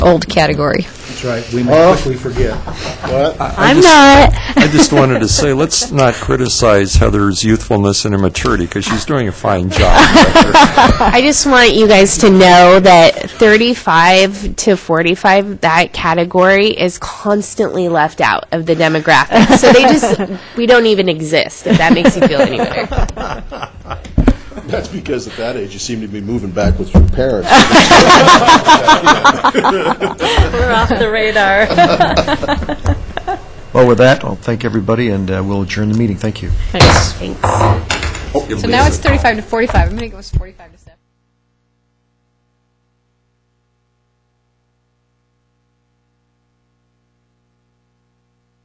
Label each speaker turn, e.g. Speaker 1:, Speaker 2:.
Speaker 1: old category.
Speaker 2: That's right, we may quickly forget.
Speaker 1: I'm not.
Speaker 3: I just wanted to say, let's not criticize Heather's youthfulness and immaturity, because she's doing a fine job.
Speaker 4: I just want you guys to know that 35 to 45, that category is constantly left out of the demographic. So they just, we don't even exist, if that makes you feel any better.
Speaker 5: That's because at that age, you seem to be moving back with your parents.
Speaker 6: We're off the radar.
Speaker 2: Well, with that, I'll thank everybody, and uh, we'll adjourn the meeting. Thank you.
Speaker 6: Thanks.
Speaker 1: So now it's 35 to 45. I'm going to go 45 to 70.